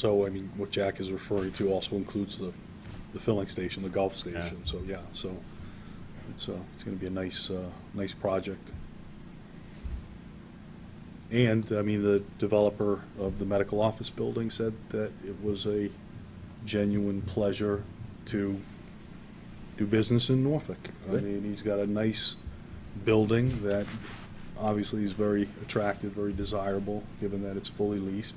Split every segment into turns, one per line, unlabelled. So, I mean, what Jack is referring to also includes the, the filling station, the golf station, so, yeah, so it's, uh, it's gonna be a nice, uh, nice project. And, I mean, the developer of the medical office building said that it was a genuine pleasure to do business in Norfolk. I
Good.
mean, he's got a nice building that obviously is very attractive, very desirable, given that it's fully leased.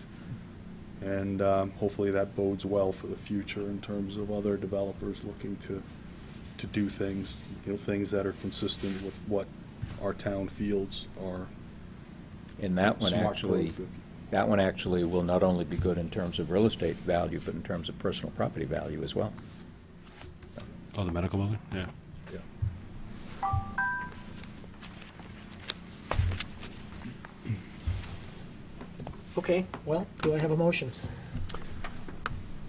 And um, hopefully that bodes well for the future in terms of other developers looking to, to do things, you know, things that are consistent with what our town fields are.
And that one
smart
actually,
growth.
that one actually will not only be good in terms of real estate value, but in terms of personal property value as well.
Oh, the medical building? Yeah.
Yeah.
Okay, well, do I have a motion?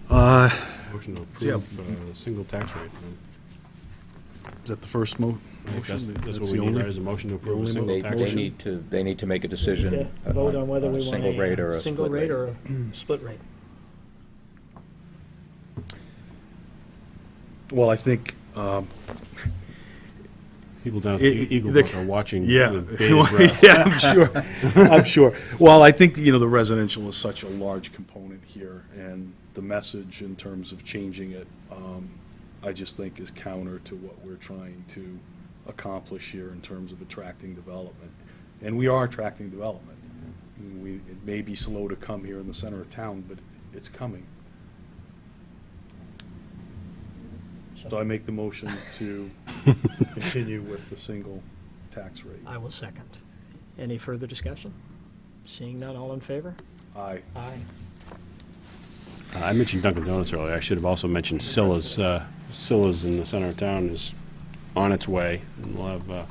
Uh,
Motion to approve uh, the single tax rate.
Is that the first mo-
I think That's
motion?
that's
the
what we need,
only-
right, is a motion to approve a
only
single
They,
tax
they
rate.
need to, they need to make a
Okay,
decision.
Vote on whether
a
we want a.
Single rate or a
Single
split
rate
rate.
or a split rate.
Well, I think, um,
People down at
It-
Eagle
the-
Buck are watching uh,
yeah.
with bated breath.
Yeah, I'm sure, I'm sure. Well, I think, you know, the residential is such a large component here, and the message in terms of changing it, um, I just think is counter to what we're trying to accomplish here in terms of attracting development. And we are attracting development. I mean, We, it may be slow to come here in the center of town, but it's coming. So I make the motion to continue with the single tax rate.
I will second. Any further discussion? Seeing none, all in favor?
Aye.
Aye.
Uh, I mentioned Dunkin' Donuts earlier. I should have also mentioned Silla's. Uh, Silla's in the center of town is on its way. And we'll have uh,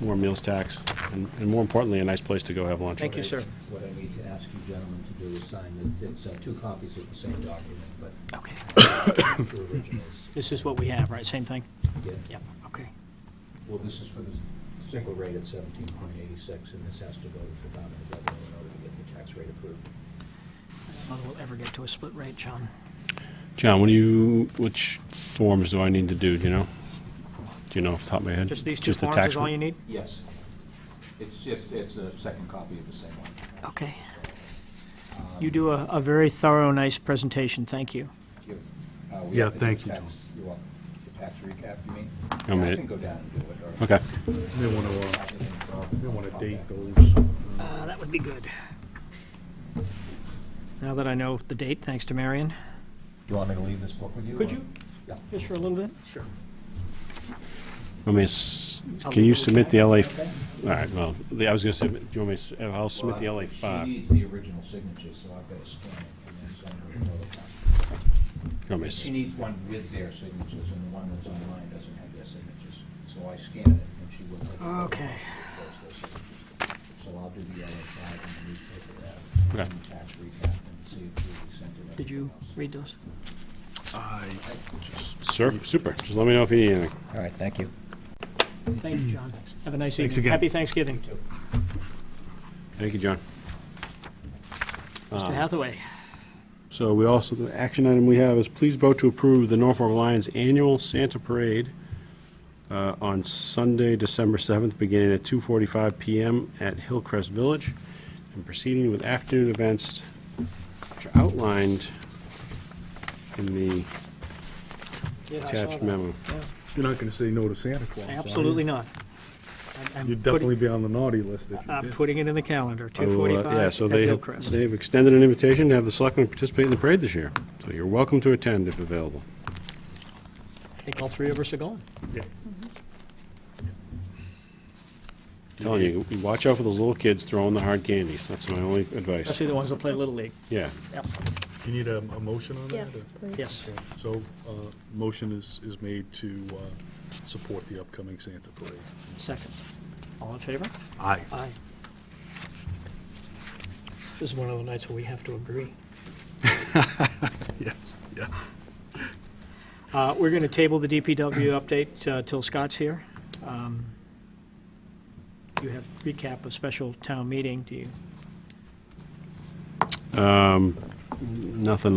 more meals tax and and more importantly, a nice place to go have lunch.
Thank you, sir.
What I need to ask you gentlemen to do is sign, it's uh, two copies of the same document, but
Okay.
two originals.
This is what we have, right? Same thing?
Yeah.
Yep, okay.
Well, this is for the s- single rate at seventeen point eighty-six, and this has to go to the Department of Revenue in order to get the tax rate approved.
Whether we'll ever get to a split rate, John.
John, what do you, which forms do I need to do, do you know? Do you know off the top of my head?
Just these two
the
forms
tax
is all
one?
you need?
Yes. It's just, it's a second copy of the same one.
Okay. You do a, a very thorough, nice presentation. Thank you.
Give, uh, we
Yeah,
have to do
thank you,
tax-
Tom.
You want the tax recap, you mean?
I mean,
I
it-
can go down and do it, or.
Okay.
They want to,
I can, uh,
they want to
pop
date
back.
those.
Uh, that would be good. Now that I know the date, thanks to Marion.
Do you want me to leave this book with you?
Could
or-
you?
Yeah.
Just for a little bit?
Sure.
I mean, s- can you submit the LA, f- all right, well, the- I was gonna submit, do you want me to, s- I'll submit the LA
Well,
five.
She
Do
needs the original signature, so I've got to scan it and then send her another copy.
you want me to s-
She needs one with their signatures, and the one that's online doesn't have their signatures. So I scan it, and she will. take a photo
Okay.
of those signatures. So I'll do the LA five and the newspaper ad,
Okay.
and the tax recap, and see if we sent it.
Did you read those?
I
Sir, super, just let me know if you need anything.
All right, thank you.
Thank you, John. Have a nice evening.
Thanks again.
Happy Thanksgiving.
Thank you, John.
Mr. Hathaway.
So we also, the action item we have is please vote to approve the Norfolk Lions Annual Santa Parade uh, on Sunday, December 7th, beginning at 2:45 PM at Hillcrest Village and proceeding with afternoon events which are outlined in the
Yes, I saw
attached
that.
memo.
Yeah.
You're not going to say no to Santa Claus, are you?
Absolutely not. I'm- I'm
You'd
putting-
definitely be on the naughty list if you
I'm
did.
putting it in the calendar,
I will, uh,
2:45
Yeah,
at
so they,
Hillcrest.
they've extended an invitation to have the selectmen participate in the parade this year. So you're welcome to attend if available.
I think all three of us are going.
Telling you, you watch out for those little kids throwing the hard candies. That's my only advice.
Especially the ones that play Little League.
Yeah.
Yep,
You need a, a motion on that?
Yes,
or-
please.
Yes.
So, uh, motion is, is made to, uh, support the upcoming Santa parade.
Second. All in favor?
Aye.
Aye. This is one of the nights where we have to agree.
Yes, yeah.
Uh, We're going to table the DPW update uh, till Scott's here. Um, You have recap of special town meeting. Do you
Nothing